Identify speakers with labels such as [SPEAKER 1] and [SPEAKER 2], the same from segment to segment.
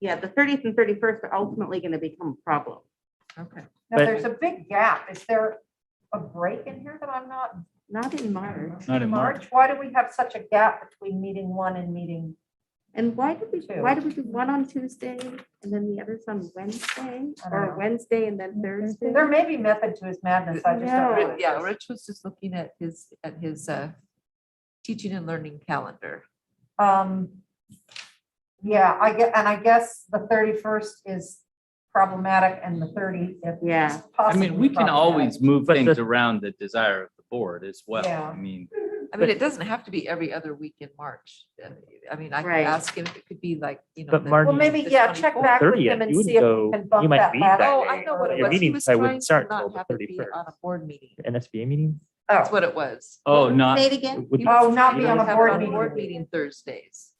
[SPEAKER 1] yeah, the thirtieth and thirty-first are ultimately gonna become a problem.
[SPEAKER 2] Okay.
[SPEAKER 3] Now,
[SPEAKER 4] But-
[SPEAKER 3] there's a big gap. Is there a break in here that I'm not?
[SPEAKER 1] Not in March.
[SPEAKER 4] Not in March.
[SPEAKER 3] Why do we have such a gap between meeting one and meeting?
[SPEAKER 1] And why did we,
[SPEAKER 3] Two.
[SPEAKER 1] why did we do one on Tuesday and then the others on Wednesday?
[SPEAKER 3] I don't know.
[SPEAKER 1] Or Wednesday and then Thursday?
[SPEAKER 3] There may be method to his madness. I just don't know.
[SPEAKER 2] Ri- Yeah, Rich was just looking at his, at his uh, teaching and learning calendar.
[SPEAKER 3] Um, yeah, I get, and I guess the thirty-first is problematic and the thirtieth.
[SPEAKER 1] Yeah.
[SPEAKER 4] I mean, we can always move
[SPEAKER 5] But
[SPEAKER 4] things
[SPEAKER 5] the-
[SPEAKER 4] around the desire of the board as well.
[SPEAKER 3] Yeah.
[SPEAKER 4] I mean,
[SPEAKER 2] I
[SPEAKER 4] But-
[SPEAKER 2] mean, it doesn't have to be every other week in March. Uh, I mean, I could
[SPEAKER 1] Right.
[SPEAKER 2] ask him if it could be like, you know.
[SPEAKER 4] But
[SPEAKER 2] the-
[SPEAKER 4] Marty-
[SPEAKER 3] Well, maybe,
[SPEAKER 2] the
[SPEAKER 3] yeah, check
[SPEAKER 2] 24th.
[SPEAKER 3] back with
[SPEAKER 4] 30th,
[SPEAKER 3] him and
[SPEAKER 4] you would
[SPEAKER 3] see if
[SPEAKER 4] go-
[SPEAKER 3] we can bump
[SPEAKER 4] you might
[SPEAKER 3] that
[SPEAKER 4] be
[SPEAKER 3] back.
[SPEAKER 4] back.
[SPEAKER 2] Oh, I know what it
[SPEAKER 4] Your
[SPEAKER 2] was. He
[SPEAKER 4] meetings
[SPEAKER 2] was
[SPEAKER 4] probably
[SPEAKER 2] trying
[SPEAKER 4] wouldn't
[SPEAKER 2] to
[SPEAKER 4] start till
[SPEAKER 2] not
[SPEAKER 4] the
[SPEAKER 2] have it be
[SPEAKER 4] 31st.
[SPEAKER 2] on a board meeting.
[SPEAKER 4] the NSBA meeting?
[SPEAKER 3] Oh,
[SPEAKER 2] That's what it was.
[SPEAKER 4] Oh, not,
[SPEAKER 1] Say it again?
[SPEAKER 4] would-
[SPEAKER 2] He
[SPEAKER 3] Oh,
[SPEAKER 2] was
[SPEAKER 3] not
[SPEAKER 2] trying
[SPEAKER 3] be
[SPEAKER 2] to
[SPEAKER 3] on a
[SPEAKER 2] have it
[SPEAKER 3] board
[SPEAKER 2] on
[SPEAKER 3] meeting.
[SPEAKER 2] Board meeting Thursdays.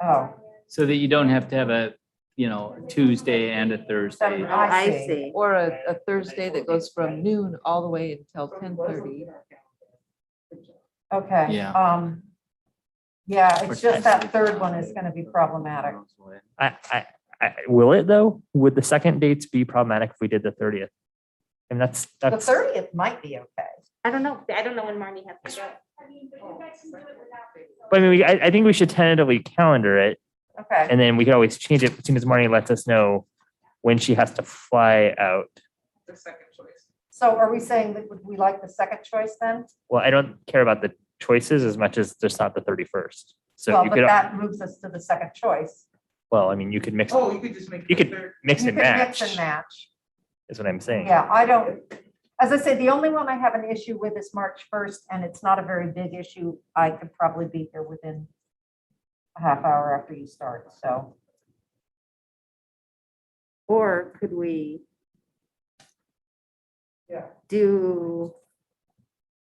[SPEAKER 3] oh,
[SPEAKER 4] so that you don't have to have a, you know, Tuesday and a Thursday.
[SPEAKER 1] Oh,
[SPEAKER 3] I
[SPEAKER 1] I
[SPEAKER 3] see.
[SPEAKER 1] see.
[SPEAKER 2] Or a, a Thursday that goes from noon all the way until ten thirty.
[SPEAKER 3] oh, okay.
[SPEAKER 4] Yeah.
[SPEAKER 3] Um, yeah, it's
[SPEAKER 4] Or
[SPEAKER 3] just that
[SPEAKER 4] text.
[SPEAKER 3] third one is gonna be problematic.
[SPEAKER 4] I, I,
[SPEAKER 5] I, will it though? Would the second dates be problematic if we did the thirtieth? And that's,
[SPEAKER 3] The
[SPEAKER 5] that's,
[SPEAKER 3] thirtieth might be okay.
[SPEAKER 1] I don't know. I don't know when Marnie has to go.
[SPEAKER 5] but I mean, we- I, I think we should tentatively calendar it
[SPEAKER 3] Okay,
[SPEAKER 5] and then we can always change it as soon as Marnie lets us know when she has to fly out.
[SPEAKER 3] so are we saying that would we like the second choice then?
[SPEAKER 5] Well, I don't care about the choices as much as there's not the thirty-first. So
[SPEAKER 3] Well,
[SPEAKER 5] you
[SPEAKER 3] but
[SPEAKER 5] could,
[SPEAKER 3] that moves us to the second choice.
[SPEAKER 5] well, I mean, you could mix,
[SPEAKER 6] Oh, you could just make.
[SPEAKER 5] You
[SPEAKER 6] it
[SPEAKER 5] could-
[SPEAKER 6] third.
[SPEAKER 5] mix
[SPEAKER 3] You
[SPEAKER 5] and
[SPEAKER 3] can
[SPEAKER 5] match
[SPEAKER 3] Mix and match.
[SPEAKER 5] is what I'm saying.
[SPEAKER 3] Yeah, I don't, as I say, the only one I have an issue with is March first, and it's not a very big issue. I could probably be here within a half hour after you start, so.
[SPEAKER 1] Or could we?
[SPEAKER 6] Yeah.
[SPEAKER 1] Do.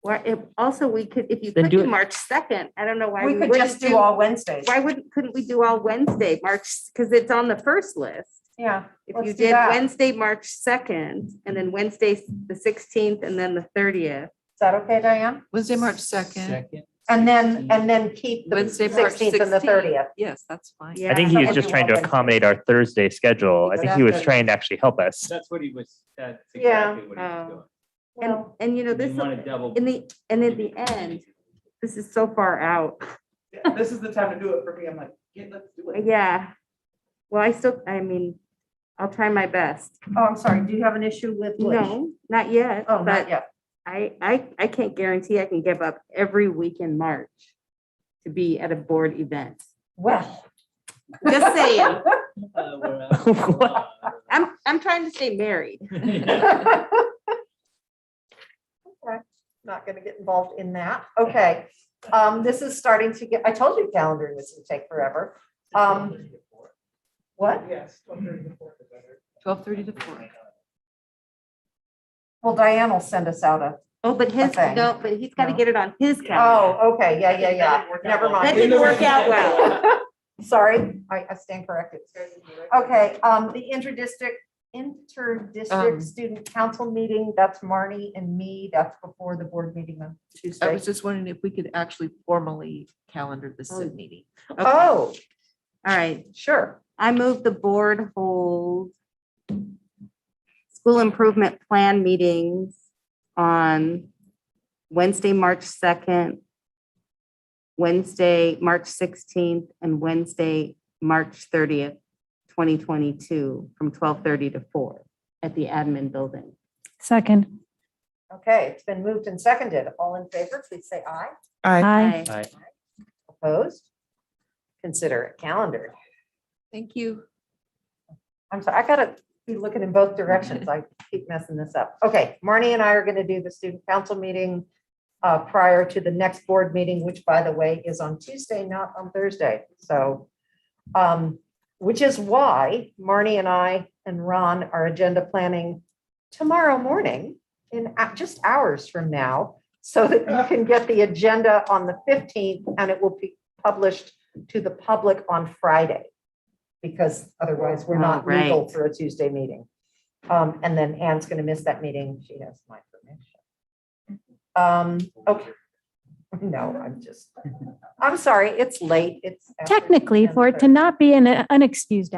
[SPEAKER 1] Or if, also we could, if you
[SPEAKER 5] Then
[SPEAKER 1] could
[SPEAKER 5] do
[SPEAKER 1] do
[SPEAKER 5] it-
[SPEAKER 1] March second, I don't know why.
[SPEAKER 3] We could
[SPEAKER 1] wouldn't
[SPEAKER 3] just do all Wednesdays.
[SPEAKER 1] Why wouldn't, couldn't we do all Wednesday, March, because it's on the first list.
[SPEAKER 3] Yeah,
[SPEAKER 1] If
[SPEAKER 3] Let's
[SPEAKER 1] you
[SPEAKER 3] do
[SPEAKER 1] did
[SPEAKER 3] that.
[SPEAKER 1] Wednesday, March second, and then Wednesday, the sixteenth, and then the thirtieth.
[SPEAKER 3] is that okay, Diane?
[SPEAKER 2] Wednesday, March second.
[SPEAKER 3] And then, and then keep the
[SPEAKER 2] Wednesday, March
[SPEAKER 3] sixteenth and the
[SPEAKER 2] 16th.
[SPEAKER 3] thirtieth.
[SPEAKER 2] Yes, that's fine.
[SPEAKER 1] Yeah.
[SPEAKER 5] I think he
[SPEAKER 3] so
[SPEAKER 5] was just
[SPEAKER 3] everyone
[SPEAKER 5] trying to
[SPEAKER 3] can-
[SPEAKER 5] accommodate our Thursday schedule. I think he was
[SPEAKER 2] Exactly.
[SPEAKER 5] trying to actually help us.
[SPEAKER 4] that's what he was, that's
[SPEAKER 3] Yeah.
[SPEAKER 4] exactly what he
[SPEAKER 1] Oh.
[SPEAKER 4] was doing.
[SPEAKER 1] And, and you know, this,
[SPEAKER 4] You want to
[SPEAKER 1] is-
[SPEAKER 4] double.
[SPEAKER 1] in the, and in the end, this is so far out.
[SPEAKER 6] Yeah, This is the time to do it for me. I'm like, yeah, let's do it.
[SPEAKER 1] Yeah. Well, I still, I mean, I'll try my best.
[SPEAKER 3] Oh, I'm sorry, do you have an issue with? which?
[SPEAKER 1] No, not yet,
[SPEAKER 3] Oh, not
[SPEAKER 1] but
[SPEAKER 3] yet.
[SPEAKER 1] I, I, I can't guarantee I can give up every week in March to be at a board event.
[SPEAKER 3] Well.
[SPEAKER 1] Just saying,
[SPEAKER 3] Um,
[SPEAKER 4] Uh, we're
[SPEAKER 5] What?
[SPEAKER 4] out.
[SPEAKER 1] I'm, I'm trying to stay married.
[SPEAKER 3] Okay, Not gonna get involved in that. Okay. Um, this is starting to get, I told you calendaring this would take forever. Um, What?
[SPEAKER 6] Yes. 12:30 to 4 is better.
[SPEAKER 2] Twelve thirty to four.
[SPEAKER 3] Well, Diane will send us out a,
[SPEAKER 1] Oh, but his,
[SPEAKER 3] Okay.
[SPEAKER 1] no, but he's got to
[SPEAKER 6] No.
[SPEAKER 1] get it on his calendar.
[SPEAKER 3] oh, okay, yeah, yeah, yeah.
[SPEAKER 6] That didn't work out
[SPEAKER 3] Never
[SPEAKER 6] well.
[SPEAKER 3] mind.
[SPEAKER 1] That didn't work out well.
[SPEAKER 3] Sorry, I, I stand corrected. Okay, um, the interdistrict, interdistrict
[SPEAKER 2] Um.
[SPEAKER 3] student council meeting, that's Marnie and me. That's before the board meeting on
[SPEAKER 2] I
[SPEAKER 3] Tuesday.
[SPEAKER 2] was just wondering if we could actually formally calendar the
[SPEAKER 1] Oh.
[SPEAKER 2] SID meeting.
[SPEAKER 1] Okay. All
[SPEAKER 3] Oh,
[SPEAKER 1] right.
[SPEAKER 3] sure.
[SPEAKER 1] I move the board hold school improvement plan meetings on Wednesday, March 2nd, Wednesday, March 16th, and Wednesday, March 30th, 2022, from 12:30 to 4 at the admin building.
[SPEAKER 7] Second.
[SPEAKER 3] Okay, it's been moved and seconded. All in favor, please say aye.
[SPEAKER 7] Aye.
[SPEAKER 5] Aye.
[SPEAKER 3] Opposed? Consider it calendared.
[SPEAKER 2] Thank you.
[SPEAKER 3] I'm sorry, I gotta be looking in both directions. I keep messing this up. Okay, Marnie and I are gonna do the student council meeting uh, prior to the next board meeting, which by the way is on Tuesday, not on Thursday. So, um, which is why Marnie and I and Ron are agenda planning tomorrow morning in a- just hours from now, so that you can get the agenda on the 15th and it will be published to the public on Friday. Because otherwise we're not
[SPEAKER 1] Oh, right.
[SPEAKER 3] legal for a Tuesday meeting. Um, and then Anne's going to miss that meeting. She has my permission. Um, okay. No, I'm just, I'm sorry, it's late. It's. after
[SPEAKER 7] Technically, for it
[SPEAKER 3] 10:30.
[SPEAKER 7] to not be an unexcused